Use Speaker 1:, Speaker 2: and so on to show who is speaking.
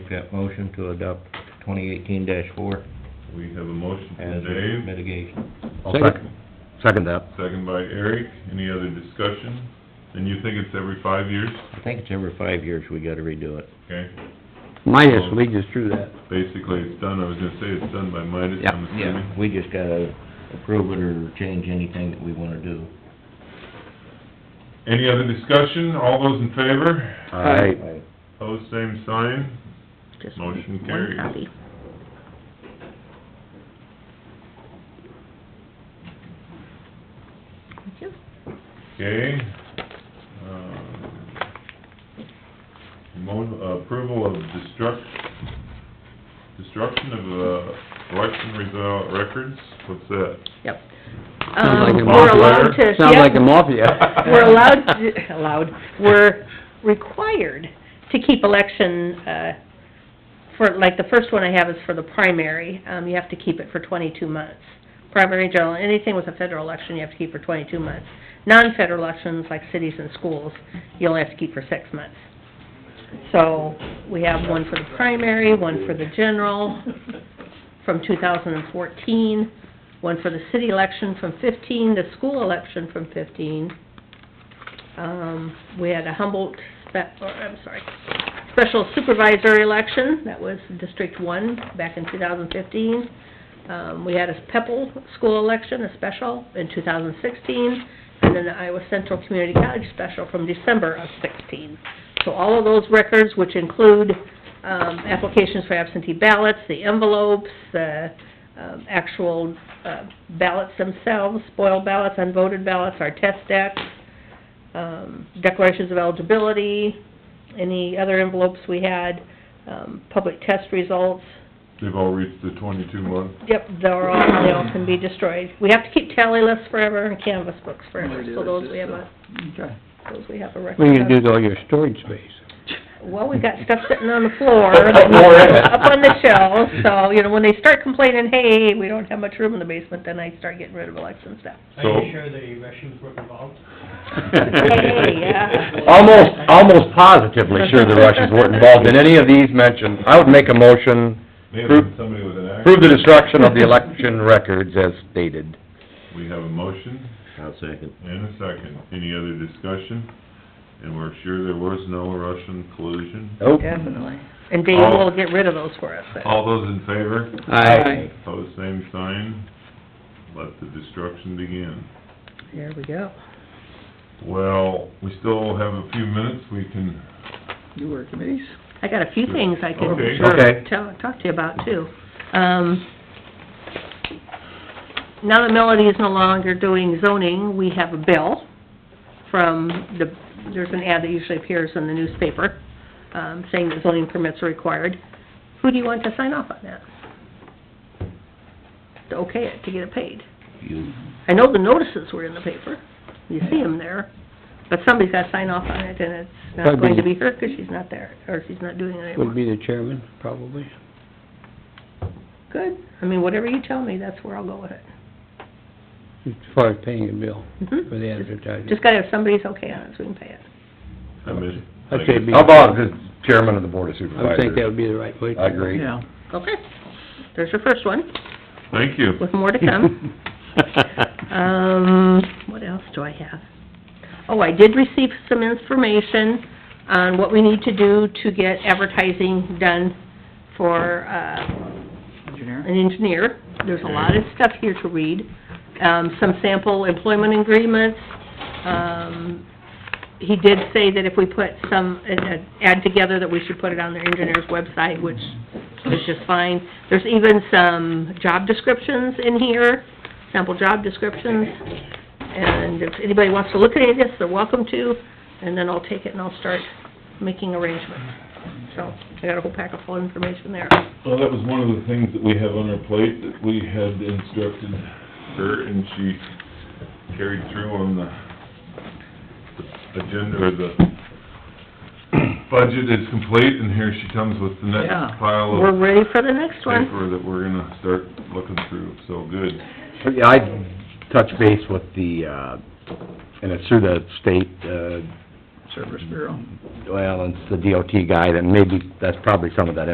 Speaker 1: that motion to adopt twenty eighteen four
Speaker 2: We have a motion
Speaker 1: as
Speaker 2: from Dave,
Speaker 1: mitigation.
Speaker 3: I'll second, second that.
Speaker 2: second by Eric. Any other discussion? And you think it's every five years?
Speaker 1: I think it's every five years we gotta redo it.
Speaker 2: Okay,
Speaker 3: Minus, we just drew that.
Speaker 2: basically it's done. I was gonna say it's done by Midas,
Speaker 3: Yeah,
Speaker 2: I'm assuming.
Speaker 1: We just gotta approve it or change anything that we wanna do.
Speaker 2: Any other discussion? All those in favor?
Speaker 3: Aye.
Speaker 2: Pose same sign.
Speaker 4: Just
Speaker 2: Motion
Speaker 4: one
Speaker 2: carries.
Speaker 4: copy. Thank you.
Speaker 2: Okay. Um, Mo, approval of destruct, destruction of, uh, election result records, what's that?
Speaker 4: Yep.
Speaker 3: Sounds like a
Speaker 4: Um, we're allowed
Speaker 2: mafia.
Speaker 4: to,
Speaker 3: Sounds like the
Speaker 4: yeah,
Speaker 3: mafia.
Speaker 4: we're allowed, to- allowed, we're required to keep election, uh, for, like, the first one I have is for the primary, um, you have to keep it for twenty-two months. Primary, general, anything with a federal election, you have to keep for twenty-two months. Non-federal elections, like cities and schools, you only have to keep for six months. So, we have one for the primary, one for the general, from 2014, one for the city election from 15, the school election from 15. Um, we had a Humboldt, spe- or, I'm sorry, special supervisor election, that was District One back in 2015. Um, we had a Pepple school election, a special, in 2016, and then the Iowa Central Community College special from December of 16. So all of those records, which include, um, applications for absentee ballots, the envelopes, the, um, actual, uh, ballots themselves, spoiled ballots, unvoted ballots, our test decks, um, declarations of eligibility, any other envelopes we had, um, public test results.
Speaker 2: They've all reached the twenty-two month.
Speaker 4: Yep, they're all, they all can be destroyed. We have to keep tally lists forever and canvas books forever, so those we have a,
Speaker 3: Okay.
Speaker 4: those we have a record
Speaker 3: What
Speaker 4: of.
Speaker 3: are you gonna do with all your storage space?
Speaker 4: Well, we got stuff sitting on the floor,
Speaker 3: More of it.
Speaker 4: up on the shelf, so, you know, when they start complaining, hey, we don't have much room in the basement, then I start getting rid of election stuff.
Speaker 5: Are
Speaker 2: So-
Speaker 5: you sure the Russians were involved?
Speaker 4: Hey, yeah.
Speaker 3: Almost, almost positively sure the Russians weren't involved in any of these mentioned. I would make a motion,
Speaker 2: May have been somebody with an axe.
Speaker 3: prove the destruction of the election records as stated.
Speaker 2: We have a motion
Speaker 1: I'll second.
Speaker 2: and a second. Any other discussion? And we're sure there was no Russian collusion.
Speaker 3: Nope.
Speaker 4: Definitely. And Dave will get rid of those for us, but-
Speaker 2: All those in favor?
Speaker 3: Aye.
Speaker 2: Pose same sign. Let the destruction begin.
Speaker 4: there we go.
Speaker 2: Well, we still have a few minutes. We can,
Speaker 4: I got a few things I can
Speaker 2: Okay.
Speaker 3: Okay.
Speaker 4: tell, talk to you about too. Um, now that Melody is no longer doing zoning, we have a bill from the, there's an ad that usually appears in the newspaper, um, saying that zoning permits are required. Who do you want to sign off on that? To okay it, to get it paid.
Speaker 1: You,
Speaker 4: I know the notices were in the paper, you see them there, but somebody's gotta sign off on it, and it's not
Speaker 3: Probably-
Speaker 4: going to be her, 'cause she's not there, or she's not doing it anymore.
Speaker 3: be the chairman, probably.
Speaker 4: Good, I mean, whatever you tell me, that's where I'll go with it.
Speaker 3: As far as paying a bill
Speaker 4: Mhm.
Speaker 3: the advertising.
Speaker 4: Just gotta have somebody's okay on it, so we can pay it.
Speaker 2: I miss.
Speaker 3: I'd say be-
Speaker 6: How about just chairman of the board of
Speaker 3: I would think that
Speaker 6: supervisors?
Speaker 3: would be the right way. to-
Speaker 6: I agree.
Speaker 4: Okay, there's your first one,
Speaker 2: Thank you.
Speaker 4: with more to come. Um, what else do I have? Oh, I did receive some information on what we need to do to get advertising done for, uh... Engineer? An engineer. There's a lot of stuff here to read. Um, some sample employment agreements. Um, he did say that if we put some, an an ad together, that we should put it on their engineer's website, which is just fine. There's even some job descriptions in here, sample job descriptions. And if anybody wants to look at any of this, they're welcome to, and then I'll take it and I'll start making arrangements. So, I got a whole pack of full information there.
Speaker 2: Well, that was one of the things that we have on our plate that we had instructed her and she carried through on the the agenda or the budget is complete and here she comes with the next pile
Speaker 4: We're
Speaker 2: of
Speaker 4: ready for the next one.
Speaker 2: paper that we're gonna start looking through. So good.
Speaker 6: Yeah, I touch base with the, uh, and it's through the state, uh... Service Bureau. Well, it's the DOT guy, then maybe, that's probably some of that